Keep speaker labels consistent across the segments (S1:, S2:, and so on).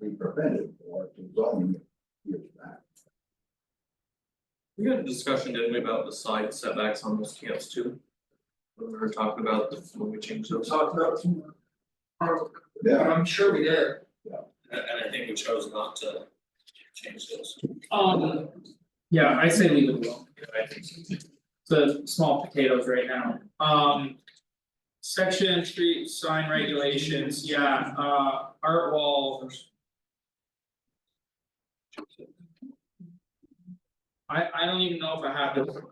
S1: we prevented for to zoning it years back.
S2: We had a discussion, didn't we, about the side setbacks on those camps too? When we were talking about the, when we changed
S3: we
S2: those,
S3: talked about some.
S1: Yeah,
S3: I'm sure we did.
S2: and and I think we chose not to change those.
S3: Um, yeah, I say leave it alone.
S2: I think so.
S3: the small potatoes right now, um. Section street sign regulations, yeah, uh, art wall. I I don't even know if I have the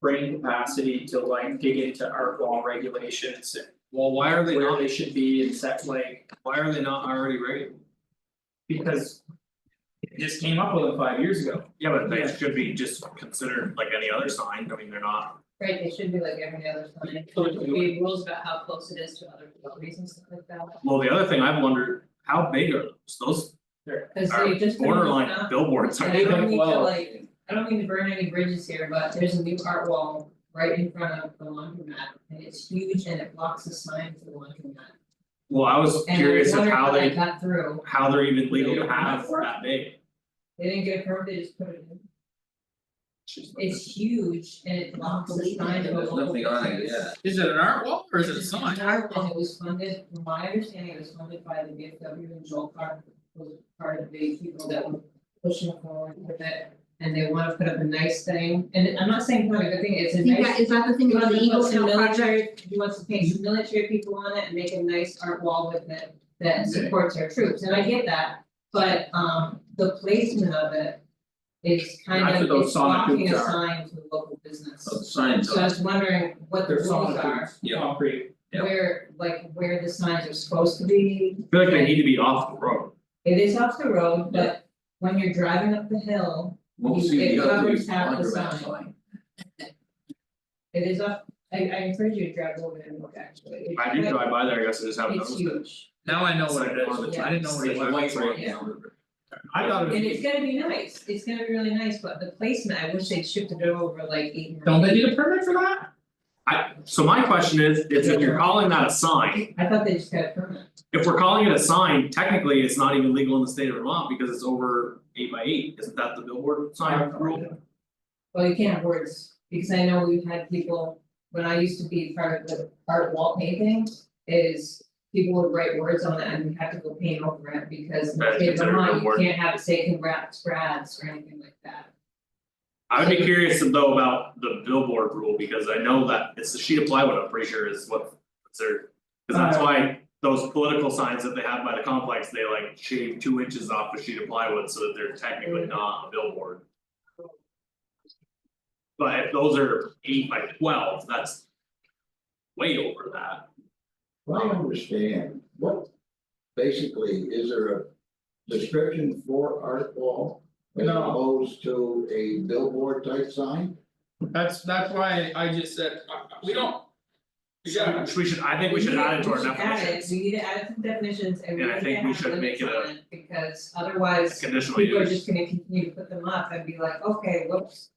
S3: brain capacity to like dig into art wall regulations and
S2: Well, why are they
S3: where
S2: not,
S3: they should be and set like,
S2: why are they not already ready?
S3: because. It just came up with it five years ago,
S2: Yeah, but
S3: Yeah.
S2: they should be just considered like any other sign, I mean, they're not,
S4: Right, they should be like every other sign,
S3: Totally.
S4: we have rules about how close it is to other properties and stuff like that,
S2: well, the other thing I've wondered, how big are those, those
S4: cause
S2: are
S4: they just. put in
S2: borderline
S4: stuff-
S2: billboards,
S4: I
S2: aren't
S3: They
S2: they?
S4: don't
S3: don't
S4: mean to
S3: well.
S4: like, I don't mean to burn any bridges here, but there's a new art wall right in front of the laundromat, and it's huge and it blocks the sign to the laundromat.
S2: Well, I was
S4: And I
S2: curious of
S4: wondered
S2: how
S4: that
S2: they,
S4: got through,
S2: how they're even legal
S3: They
S2: to
S3: don't have
S2: have
S3: one.
S2: that big.
S4: they didn't get a permit, they just put it in, it's huge and it blocks the sign to a
S5: There's
S4: local.
S5: nothing on it,
S4: business.
S5: yeah.
S3: is it an art wall or is it a sign?
S4: It's an art wall, it was funded, from my understanding, it was funded by the VFW and Joel Clark, was part of the people that were pushing forward with it. And they wanna put up a nice thing, and I'm not saying put up a good thing, it's
S6: I
S4: a
S6: think
S4: nice.
S6: that, is that the thing about the
S4: He
S6: Eagle
S4: wants to
S6: Scout
S4: put some
S6: project?
S4: military, he wants to paint some military people on it and make a nice art wall with it that supports our troops, and I get that. But um the placement of it is
S3: Not
S4: kind
S3: for
S4: of,
S3: those
S4: it's
S3: sonic
S4: blocking a
S3: boots are.
S4: sign to the local business.
S5: So the signs
S4: So I
S5: are,
S4: was wondering what the
S3: They're
S4: rules are.
S3: solid boots,
S5: Yeah.
S3: concrete.
S5: Yeah.
S4: Where, like, where the signs are supposed to be,
S2: I feel like they need to be off the road.
S4: it is off the road, but when you're driving up the hill,
S5: we'll
S4: You-
S5: see
S4: it
S5: the other
S4: covers half the
S5: laundromat
S4: sign.
S5: sign.
S4: it is up. I I encourage you to drive over there and look actually. It's
S2: I do drive by there, I guess I just haven't
S4: It's
S2: noticed it.
S4: huge,
S3: Now I know what it is, I didn't know what it
S5: It's
S3: was.
S5: a white road
S4: Yeah.
S5: now.
S2: I thought it
S4: and
S2: was.
S4: it's gonna be nice, it's gonna be really nice, but the placement, I wish they'd shifted it over like eight.
S3: Don't they need a permit for that?
S2: I, so my question is, is if you're calling that a sign,
S4: I thought they just got a permit,
S2: if we're calling it a sign, technically it's not even legal in the state of Vermont because it's over eight by eight, isn't that the billboard sign rule?
S4: well, you can't have words, because I know we've had people, when I used to be part of the art wall painting. Is people would write words on it and we had to go paint over it because in the
S2: That's
S4: state of
S2: considered a
S4: Vermont, you
S2: word.
S4: can't have it say congrats, brads or anything like that.
S2: I would be curious though about the billboard rule because I know that it's the sheet of plywood, I'm pretty sure is what considered. Cause that's why those political signs that they have by the complex, they like shave two inches off a sheet of plywood so that they're technically not a billboard. But if those are eight by twelve, that's way over that.
S1: Well, I understand, what, basically, is there a description for art wall? As
S3: No.
S1: opposed to a billboard type sign?
S3: That's that's why I just said, uh, we don't. Yeah,
S2: Which we should, I think we should add it to our definitions,
S4: We need to add it, we need to add it to definitions and we
S2: And I
S4: need to
S2: think we
S4: have
S2: should
S4: limits
S2: make it a-
S4: on it, because otherwise
S2: conditional
S4: people are
S2: use,
S4: just gonna continue to put them up and be like, okay, whoops.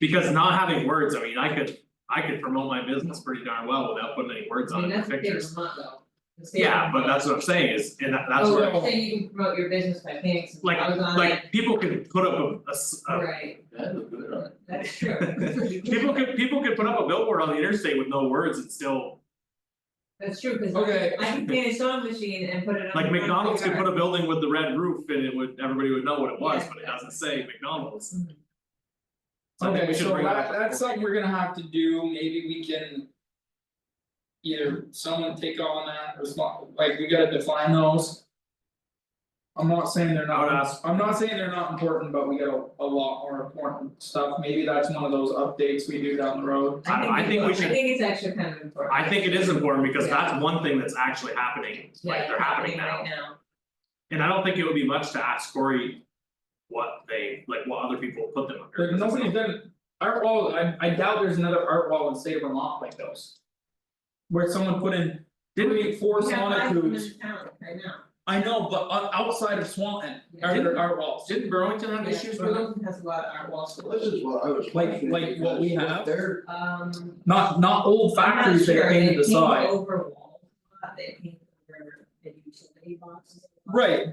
S2: because not having words, I mean, I could, I could promote my business pretty darn well without putting any words
S4: I
S2: on
S4: mean,
S2: it, or
S4: that's the thing
S2: pictures.
S4: with Vermont though. The state of
S2: Yeah, but
S4: Vermont.
S2: that's what I'm saying is, and that that's where,
S4: Oh, so you can promote your business by painting some
S2: like,
S4: flowers on it,
S2: like, uh, people could put up a- a s- a-
S4: right,
S5: That looked good on it.
S4: that's true.
S2: People could, people could put up a billboard on the interstate with no words and still,
S4: That's true, cause
S3: Okay.
S4: I can paint a sewing machine and put it on
S2: like
S4: the front
S2: McDonald's could
S4: yard.
S2: put a building with the red roof and it would, everybody would know what it was,
S4: Yeah.
S2: but it doesn't say McDonald's.
S4: Mhm.
S2: So I think
S3: okay,
S2: we should
S3: so
S2: bring that
S3: that
S2: up.
S3: that's something we're gonna have to do, maybe we can. Either someone take on that, or some- like we gotta define those. I'm not saying they're
S2: I would
S3: not,
S2: ask-
S3: I'm not saying they're not important, but we got a a lot more important stuff, maybe that's one of those updates we do down the road.
S2: I don't- I think we
S4: it's-
S2: should-
S4: I think it's actually kind of important.
S2: I think it is important because that's one thing that's actually happening, like they're happening now.
S4: Yeah, happening right now.
S2: And I don't think it would be much to ask Corey what they, like what other people put them under.
S3: Like nobody's done, art wall, I I doubt there's another art wall in the state of Vermont like those. Where someone put in, didn't we, four
S4: We have
S3: sonic
S4: five
S3: hoops.
S4: women in town right now.
S3: I know, but on outside of Swanton,
S4: Yeah.
S3: are there art walls?
S2: Didn't Burlington
S4: Yeah, Burlington has a lot of art walls.
S1: Well, This is what I was
S3: Like-
S1: questioning.
S3: like what we
S1: because
S3: have?
S1: They're,
S4: Um.
S3: Not not old
S4: I'm not
S3: factories that
S4: sure.
S3: are painted the
S4: They
S3: side.
S4: paint over walls, a lot. they paint over the utility boxes. a lot.
S3: Right,